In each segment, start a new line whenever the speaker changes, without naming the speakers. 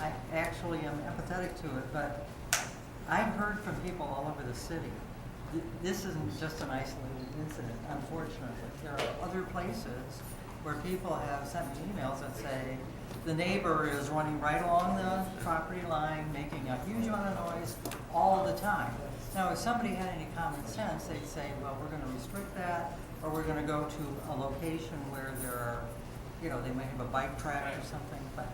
I actually am empathetic to it, but I've heard from people all over the city. Th- This isn't just an isolated incident, unfortunately. There are other places where people have sent me emails that say, the neighbor is running right along the property line, making a huge amount of noise all the time. Now, if somebody had any common sense, they'd say, well, we're gonna restrict that, or we're gonna go to a location where there are, you know, they might have a bike track or something, but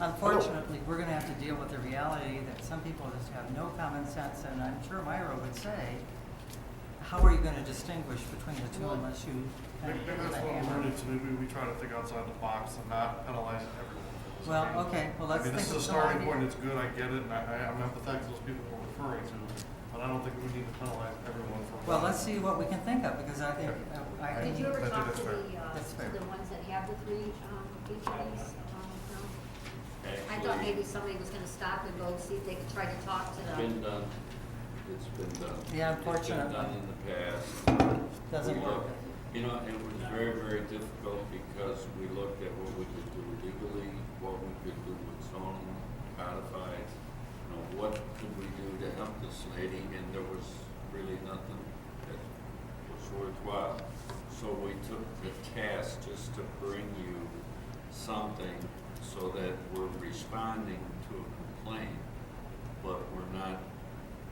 unfortunately, we're gonna have to deal with the reality that some people just have no common sense, and I'm sure Myra would say, how are you gonna distinguish between the two unless you kind
Maybe
of
maybe
put a
that's what
hammer?
we're into, maybe we try to think outside the box and not penalize everyone. for this.
Well,
I mean-
okay, well,
I
let's
mean,
think
this is a
of some
starting
idea.
point, it's good, I get it, and I, I- I'm empathetic to those people we're referring to, but I don't think we need to penalize everyone for.
Well, let's see what we can think of, because I think, uh, I, I,
Right.
Did you ever
But
talk
that's
to the,
fair.
uh,
That's fair.
to the ones that have the three, um, each of these, um, no? I thought maybe somebody was gonna stop and go see if they could try to talk to
It's
them.
been done, it's been done.
Yeah,
It's been
unfortunately.
done in the past.
Doesn't
We
work.
looked- You know, it was very, very difficult because we looked at what we could do legally, what we could do with zoning, codified, you know, what could we do to help this lady, and there was really nothing that was worthwhile. So we took the task just to bring you something so that we're responding to a complaint, but we're not,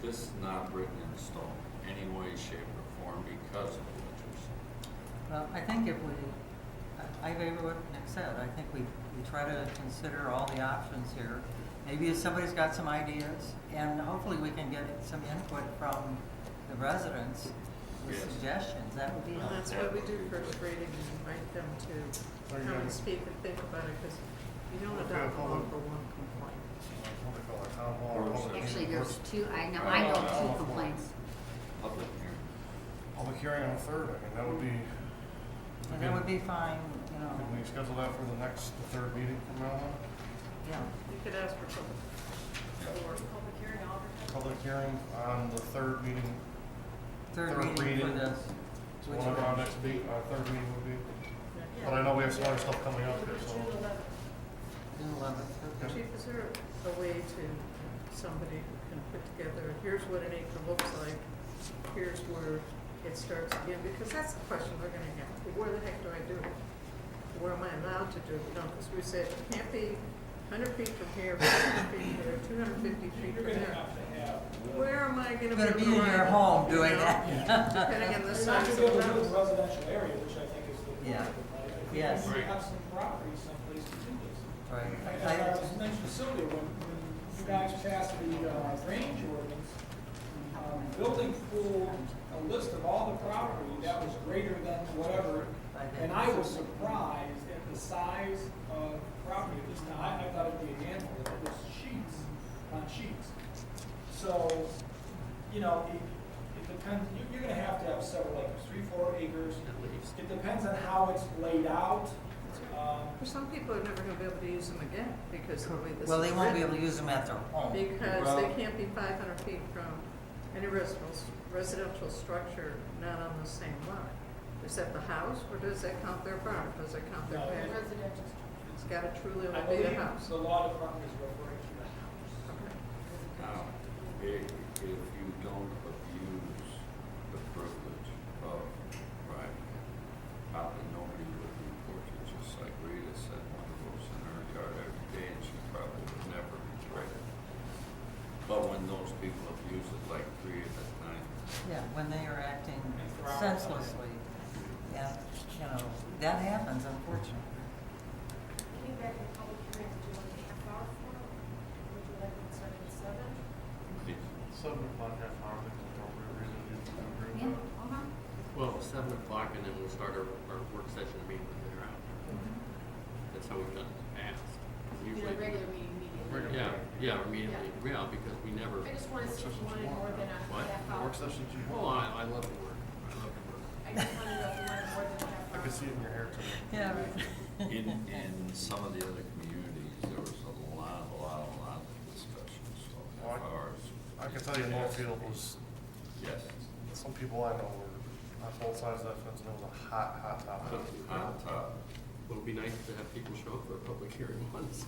this is not written in stone, any way, shape, or form because of what you're saying.
well, I think if we, I I agree with what Nick said, I think we, we try to consider all the options here. Maybe if somebody's got some ideas, and hopefully we can get some input from the residents with
Yes.
suggestions, that would be
Well,
helpful.
that's why we do first reading and invite them to come and speak and think about it, because you don't
Okay,
adopt a
hold
law
on.
for one complaint.
What do they call it, uh, town hall or
Or
public-
Actually, there's two, I know,
Uh,
I know
uh,
two complaints.
Public hearing.
Public hearing on the third, I mean, that would be,
And that would be fine, you know,
can we schedule that for the next, the third meeting from now on?
yeah.
You could ask for public, or
Public hearing on the third meeting,
Third
Third
reading for
reading.
this.
so
Which
whatever our
one?
next meet, our third meeting would be. But I know we have some other stuff coming up here, so.
June eleventh, okay.
Chief, is there a way to, somebody who can put together, here's what an acre looks like, here's where it starts again, because that's the question we're gonna have, where the heck do I do it? Where am I allowed to do it, you know, because we said, it can't be hundred feet from here, fifty feet from there, two hundred fifty feet from there. Where am I
You're
gonna be?
gonna be in your
driving,
home
you
doing
know,
that.
Depending on the
You're not
size
gonna
of
be able
the
to do it in a
house.
residential area, which I think is the point.
Yeah.
of it, right? If
Yes.
You have some property someplace to do this.
Right. I-
As far as this next facility, when, when you guys passed the, uh, range ordinance, um, building pool, a list of all the property that was greater than whatever, and I was surprised at the size of property, at least I, I thought it'd be a handful, it was sheets on sheets. So, you know, it, it depends, you, you're gonna have to have several acres, three, four acres. It depends on how it's laid out, um,
For some people, are never gonna be able to use them again, because of the way this is
Well, they won't be
written.
able to use them at their home.
Because
Well-
they can't be five hundred feet from any residential, residential structure not on the same lot. Is that the house, or does that count their barn, does that count their
No.
patio? It's gotta truly
I
be
believe
a house.
the law department is referring to the house.
Okay.
Now, i- if you don't abuse the privilege of privacy, probably nobody would report you, just like Rita said, one of those in her yard every day, and she probably would never regret it. But when those people abuse it, like three at a time,
Yeah, when they are acting
And for hours.
senselessly, and, you know, that happens unfortunately.
Can you back the public hearing to a half hour for, would you like it started at seven?
it's,
Seven o'clock, half hour, I think is appropriate, reason to agree with
Yeah,
that.
uh-huh.
Well, seven o'clock and then we'll start our, our work session meeting when they're out. That's how we've done it in the past.
In
Usually,
a regular meeting immediately.
yeah, yeah, immediately, yeah, because we never,
I just wanna see if you wanted more than a
What?
half hour.
Work sessions you
oh, I, I love to work, I love to work.
I just wanted to know if you wanted more than a half
I
hour.
can see it in your hair today.
Yeah.
in, in some of the other communities, there was a lot, a lot, a lot of discussion, so
Well, I-
half hours.
I can tell you Northfield was,
Yes,
some people I know were on both sides of that fence, and it was a hot, hot topic.
Uh,
on top.
It'll be nice to have people show up for a public hearing once.